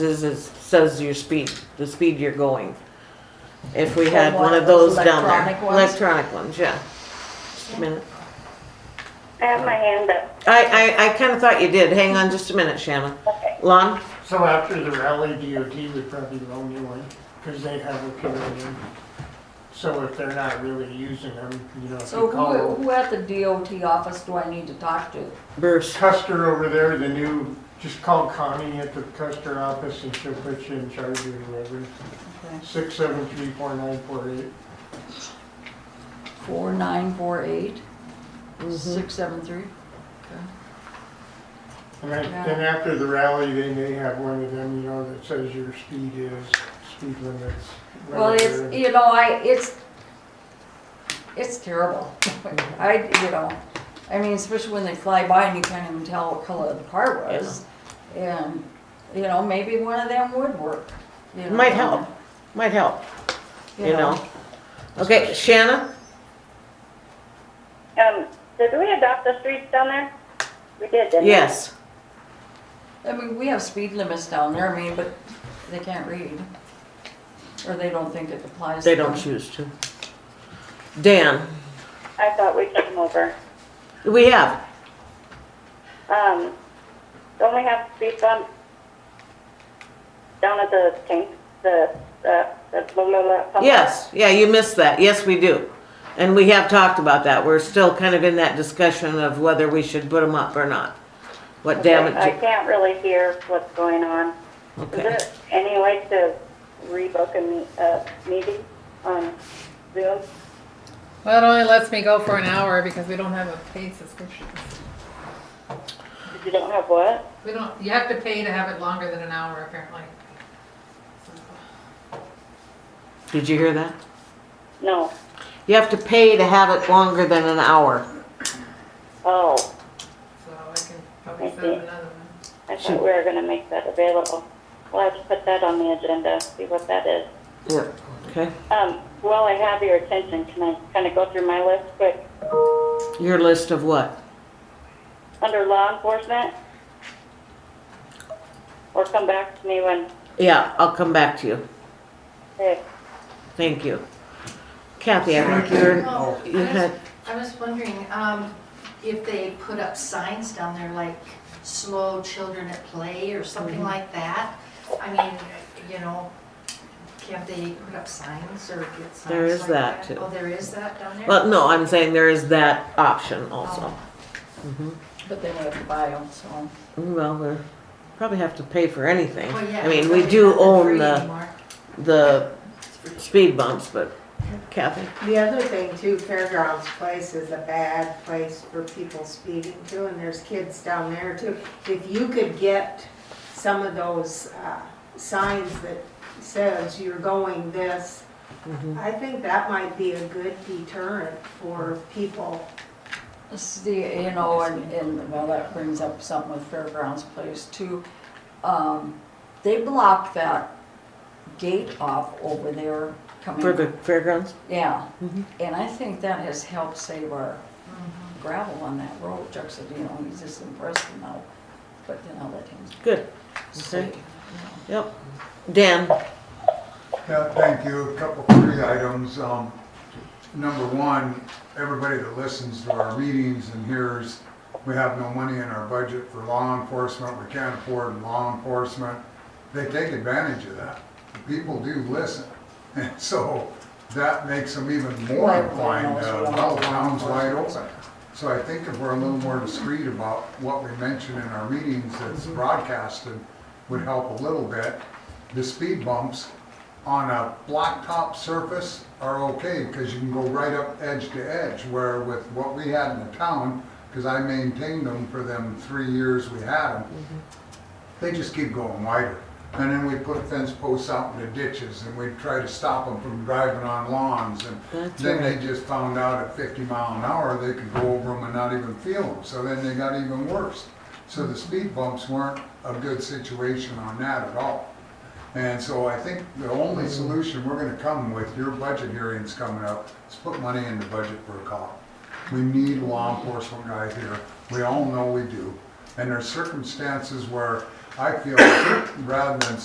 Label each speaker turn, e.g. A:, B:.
A: is, is, says your speed, the speed you're going. If we
B: Or
A: had
B: one
A: one
B: of
A: of
B: those
A: those down there.
B: electronic ones?
A: Electronic ones, yeah. Just a minute.
C: I have my hand up.
A: I, I, I kinda thought you did. Hang on just a minute, Shannon.
C: Okay.
A: Lon,
D: So after the rally, DOT would probably loan you one, because they have a pavilion. So if they're not really using them, you know, if
B: So
D: you
B: who,
D: call
B: who at the DOT office do I need to talk to?
A: Bruce,
D: Custer over there, the new, just call Connie at the Custer office and she'll put you in charge of whoever. Six seven three four nine four eight.
B: Four nine four eight,
A: Mm-hmm.
B: six seven three?
D: And then then after the rally, they may have one of them, you know, that says your speed is, speed limits.
B: Well, it's,
D: whatever.
B: you know, I, it's, it's terrible.
A: Mm-hmm.
B: I, you know, I mean, especially when they fly by and you can't even tell what color the car was. And, you know, maybe one of them would work. you know.
A: Might help. might help, you know. Okay, Shannon,
C: Um, did we adopt the streets down there? We did, didn't we?
A: yes.
B: I mean, we have speed limits down there, I mean, but they can't read. Or they don't think it applies. to
A: They don't
B: them.
A: choose to. Dan,
C: I thought we took them over.
A: we have,
C: Um, don't we have speed bump down at the tank, the, uh, the blah, blah, blah? pump?
A: yes, yeah, you missed that, yes, we do. And we have talked about that, we're still kind of in that discussion of whether we should put them up or not. What
C: I
A: damage,
C: can't really hear what's going on. Is
A: okay,
C: there any way to rebook a me, a meeting on Zoom?
E: Well, it only lets me go for an hour because we don't have a paid subscription.
C: If you don't have what?
E: We don't, you have to pay to have it longer than an hour apparently.
A: did you hear that?
C: No.
A: You have to pay to have it longer than an hour.
C: Oh,
E: So I can probably set up another one.
C: I thought we were gonna make that available. We'll have to put that on the agenda, see what that is.
A: Yep. Okay,
C: Um, while I have your attention, can I kind of go through my list quick?
A: your list of what?
C: Under law enforcement? Or come back to me when,
A: Yeah, I'll come back to you,
C: hey,
A: thank you. Kathy, I think you're,
F: Oh, I
A: you had,
F: was- I was wondering, um, if they put up signs down there like slow children at play or
A: Mm-hmm.
F: something like that? I mean, you know, can't they put up signs or get signs like that?
A: There is that, too.
F: Oh, there is that down there?
A: well, no, I'm saying there is that option also. Mm-hmm.
F: Oh.
B: But they would have to buy them, so.
A: Well, we probably have to pay for anything.
F: Well, yeah,
A: I mean,
F: because
A: we
F: they're
A: do
F: not
A: own
F: free
A: the,
F: anymore.
A: the speed bumps, but Kathy,
G: The other thing too, Fairgrounds Place is a bad place for people speeding too, and there's kids down there too. If you could get some of those uh, signs that says you're going this, I think that might be a good deterrent for people.
B: See, you know, and, and, well, that brings up something with Fairgrounds Place too. Um, they blocked that gate off over there coming.
A: for the fairgrounds?
B: Yeah, and I think that has helped save our gravel on that road. Chuck said, you know, he's just impressed now, but then I'll let him
A: Good,
B: say.
A: Okay. yep. Dan,
H: Yeah, thank you. A couple, three items. Um, Number one, everybody that listens to our meetings and hears, we have no money in our budget for law enforcement. We can't afford law enforcement. They take advantage of that. People do listen. And so that makes them even more
B: Right,
H: inclined
B: right,
H: to
B: right.
H: allow towns wide open. So I think if we're a little more discreet about what we mention in our meetings that's broadcasted, would help a little bit. The speed bumps on a blacktop surface are okay, because you can go right up edge to edge, where with what we had in the town, because I maintained them for them three years we had them, they just keep going wider. And then we put fence posts out in the ditches, and we try to stop them from driving on lawns, and
A: That's
H: then they just found out at fifty mile an hour, they could go over them and not even feel them, so then they got even worse. So the speed bumps weren't a good situation on that at all. And so I think the only solution we're gonna come with, your budget hearing's coming up, is put money in the budget for a cop. We need a law enforcement guy here, we all know we do. And there's circumstances where I feel rather than